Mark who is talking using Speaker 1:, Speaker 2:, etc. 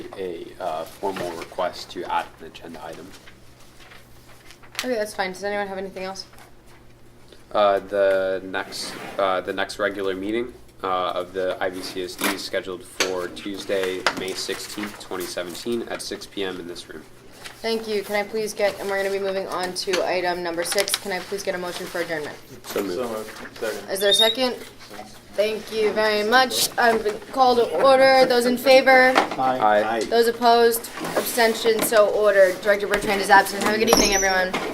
Speaker 1: a uh, formal request to add an agenda item.
Speaker 2: Okay, that's fine. Does anyone have anything else?
Speaker 1: Uh, The next, uh, the next regular meeting uh, of the IVCSD is scheduled for Tuesday, May 16th, 2017, at 6 PM in this room.
Speaker 2: Thank you. Can I please get, and we're going to be moving on to item number six. Can I please get a motion for adjournment?
Speaker 1: So
Speaker 3: So
Speaker 1: moved.
Speaker 3: moved. Second.
Speaker 2: Is there a second? Thank you very much. I've been called to order. Those in favor?
Speaker 1: Aye.
Speaker 2: Those opposed? Abstentions? So ordered. Director Bertrand is absent. Have a good evening, everyone.